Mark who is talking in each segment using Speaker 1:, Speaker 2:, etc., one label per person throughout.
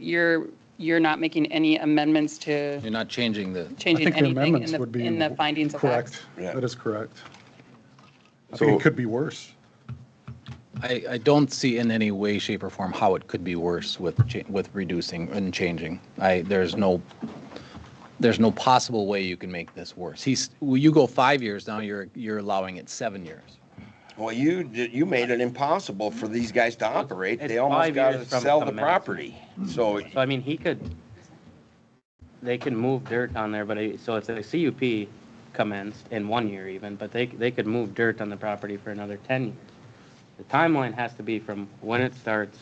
Speaker 1: you're, you're not making any amendments to
Speaker 2: You're not changing the,
Speaker 1: changing
Speaker 3: I think the
Speaker 1: anything in
Speaker 3: amendments
Speaker 1: the,
Speaker 3: would be.
Speaker 1: in the findings of fact.
Speaker 3: Correct.
Speaker 4: Yeah.
Speaker 3: That is correct. I think
Speaker 4: So,
Speaker 3: it could be worse.
Speaker 2: I, I don't see in any way, shape or form how it could be worse with, cha- with reducing and changing. I, there's no, there's no possible way you can make this worse. He's, well, you go five years, now you're, you're allowing it seven years.
Speaker 4: well, you, did- you made it impossible for these guys to operate.
Speaker 5: It's
Speaker 4: They almost
Speaker 5: five
Speaker 4: got to
Speaker 5: years from
Speaker 4: sell the
Speaker 5: commencement.
Speaker 4: property. So,
Speaker 5: So I mean, he could, they can move dirt on there, but I- so if the CUP commenced in one year even, but they, they could move dirt on the property for another 10 years. The timeline has to be from when it starts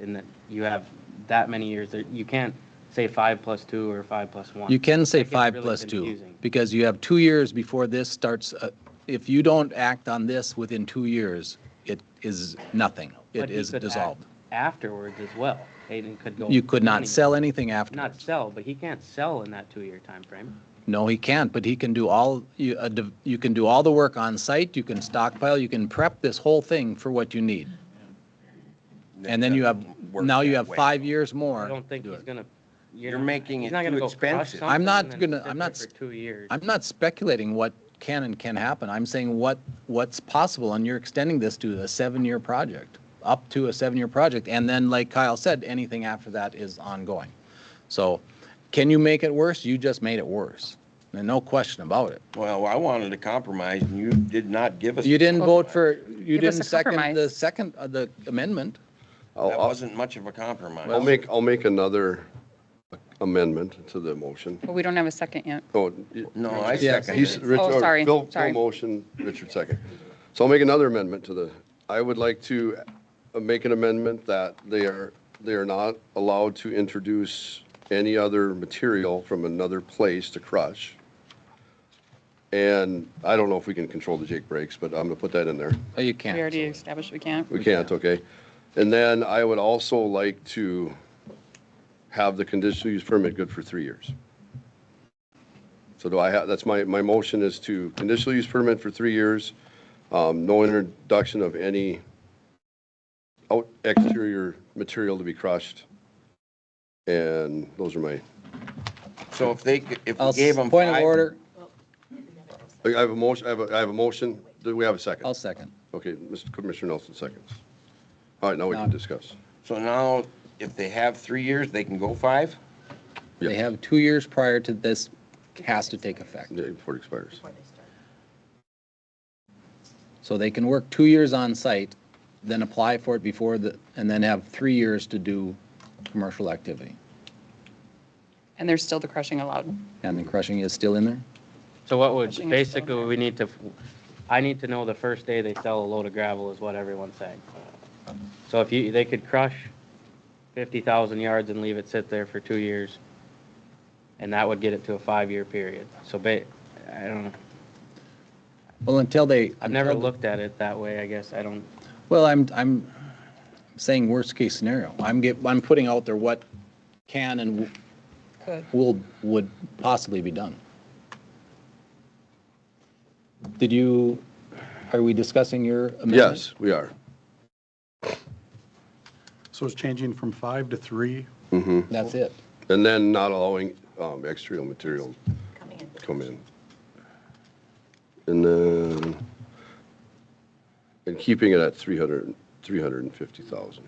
Speaker 5: and that you have that many years that you can't say five plus two or five plus one.
Speaker 2: You can say
Speaker 5: That gets
Speaker 2: five
Speaker 5: really
Speaker 2: plus two,
Speaker 5: confusing.
Speaker 2: because you have two years before this starts, uh, if you don't act on this within two years, it is nothing.
Speaker 5: But
Speaker 2: It
Speaker 5: he
Speaker 2: is
Speaker 5: could act
Speaker 2: dissolved.
Speaker 5: Afterwards as well. Hayden could go.
Speaker 2: You could not
Speaker 5: anywhere.
Speaker 2: sell anything after.
Speaker 5: Not sell, but he can't sell in that two-year time frame.
Speaker 2: No, he can't, but he can do all, you, uh, div- you can do all the work on site, you can stockpile, you can prep this whole thing for what you need. And then you have,
Speaker 4: Doesn't work
Speaker 2: now you
Speaker 4: that
Speaker 2: have
Speaker 4: way.
Speaker 2: five years more.
Speaker 5: I don't think
Speaker 2: to do
Speaker 5: he's
Speaker 2: it.
Speaker 5: gonna.
Speaker 4: You're making
Speaker 5: he's
Speaker 4: it
Speaker 5: not gonna
Speaker 4: too
Speaker 5: go crush
Speaker 4: expensive.
Speaker 5: something
Speaker 2: I'm not
Speaker 5: and then
Speaker 2: gonna-
Speaker 5: sit
Speaker 2: I'm
Speaker 5: there
Speaker 2: not
Speaker 5: For
Speaker 2: s-
Speaker 5: two years.
Speaker 2: I'm not speculating what can and can happen. I'm saying what, what's possible, and you're extending this to a seven-year project, up to a seven-year project. And then, like Kyle said, anything after that is ongoing. So can you make it worse? You just made it worse. And no question about it.
Speaker 4: well, I wanted a compromise and you did not give us.
Speaker 2: You didn't
Speaker 4: a
Speaker 2: vote
Speaker 4: compromise.
Speaker 2: for, you
Speaker 1: Oh, Give us
Speaker 2: didn't
Speaker 1: a
Speaker 2: second the
Speaker 1: compromise.
Speaker 2: second, uh, the amendment.
Speaker 6: I'll,
Speaker 4: That
Speaker 6: I'll-
Speaker 4: wasn't much of a compromise.
Speaker 6: I'll make, I'll make another amendment to the motion.
Speaker 1: But we don't have a second yet.
Speaker 6: Oh, y-
Speaker 4: No, I
Speaker 2: Yes.
Speaker 4: second
Speaker 6: he's,
Speaker 4: it.
Speaker 6: Rich,
Speaker 1: Oh,
Speaker 6: or
Speaker 1: sorry,
Speaker 6: Phil,
Speaker 1: sorry.
Speaker 6: Phil motion, Richard second. So I'll make another amendment to the, I would like to uh, make an amendment that they are, they are not allowed to introduce any other material from another place to crush. And I don't know if we can control the Jake breaks, but I'm gonna put that in there.
Speaker 2: Oh, you
Speaker 1: We
Speaker 2: can't.
Speaker 1: already established we can't.
Speaker 6: We can't, okay? And then I would also like to have the conditional use permit good for three years. So do I have, that's my, my motion is to conditional use permit for three years, um, no introduction of any out exterior material to be crushed. And those are my,
Speaker 4: So if they, if
Speaker 2: I'll,
Speaker 4: we
Speaker 2: s-
Speaker 4: gave them.
Speaker 2: point of
Speaker 4: five-
Speaker 2: order,
Speaker 6: I have a motion, I have a, I have a motion. Do we have a second?
Speaker 2: I'll second.
Speaker 6: Okay, Mr. Commissioner Nelson seconds. All right, now we can discuss.
Speaker 4: So now if they have three years, they can go five?
Speaker 2: They have two years prior to this has to take effect.
Speaker 6: Yeah, Before it expires.
Speaker 2: So they can work two years on site, then apply for it before the, and then have three years to do commercial activity.
Speaker 1: And there's still the crushing allowed.
Speaker 2: And the crushing is still in there?
Speaker 5: So what would,
Speaker 1: Crushing is
Speaker 5: basically,
Speaker 1: still in
Speaker 5: we need to, I need to know the first day they sell a load of gravel is what everyone's saying. So if you, they could crush fifty thousand yards and leave it sit there for two years, and that would get it to a five-year period. So ba, I don't know,
Speaker 2: Well, until they.
Speaker 5: I've never
Speaker 2: until-
Speaker 5: looked at it that way, I guess, I don't,
Speaker 2: Well, I'm, I'm saying worst case scenario. I'm get, I'm putting out there what can and
Speaker 1: Could.
Speaker 2: will, would possibly be done. Did you, are we discussing your amendment?
Speaker 6: Yes, we are.
Speaker 3: So it's changing from five to three.
Speaker 2: That's it.
Speaker 6: And then not allowing um, exterior material to come in. And then, and keeping it at 300, 350,000.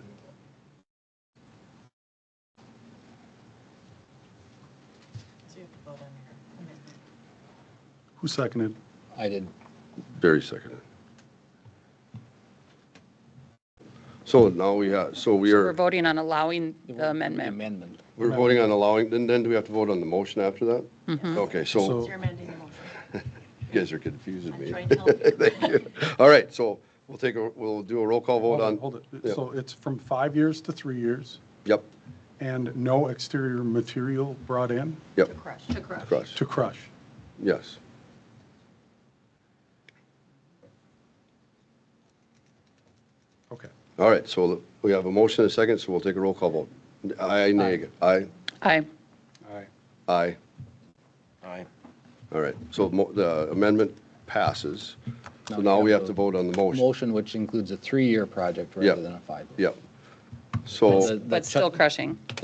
Speaker 3: Who seconded?
Speaker 2: I did.
Speaker 6: Very second. So now we have, so we
Speaker 1: We're
Speaker 6: are,
Speaker 1: voting on allowing the amendment.
Speaker 2: Amendment.
Speaker 6: we're voting on allowing, then, then do we have to vote on the motion after that? Okay, so
Speaker 3: So-
Speaker 7: You're amending the motion.
Speaker 6: you guys are confusing
Speaker 7: I'm
Speaker 6: me.
Speaker 7: trying to help you.
Speaker 6: Thank you. All right, so we'll take a, we'll do a roll call vote on.
Speaker 3: Hold it.
Speaker 6: Yeah.
Speaker 3: So it's from five years to three years
Speaker 6: Yep,
Speaker 3: and no exterior material brought in
Speaker 6: yep,
Speaker 7: To crush. To crush.
Speaker 6: crush.
Speaker 3: to crush.
Speaker 6: Yes.
Speaker 3: Okay.
Speaker 6: All right, so we have a motion and a second, so we'll take a roll call vote. Aye, nay, aye,
Speaker 1: Aye.
Speaker 6: aye.
Speaker 4: Aye.
Speaker 6: All right, so mo- the amendment passes. So now we have to vote on the motion.
Speaker 2: Motion, which includes a three-year project
Speaker 6: Yeah.
Speaker 2: rather than a five.
Speaker 6: Yep.
Speaker 2: The-
Speaker 6: So.
Speaker 2: the
Speaker 1: But
Speaker 2: chu-
Speaker 1: still crushing.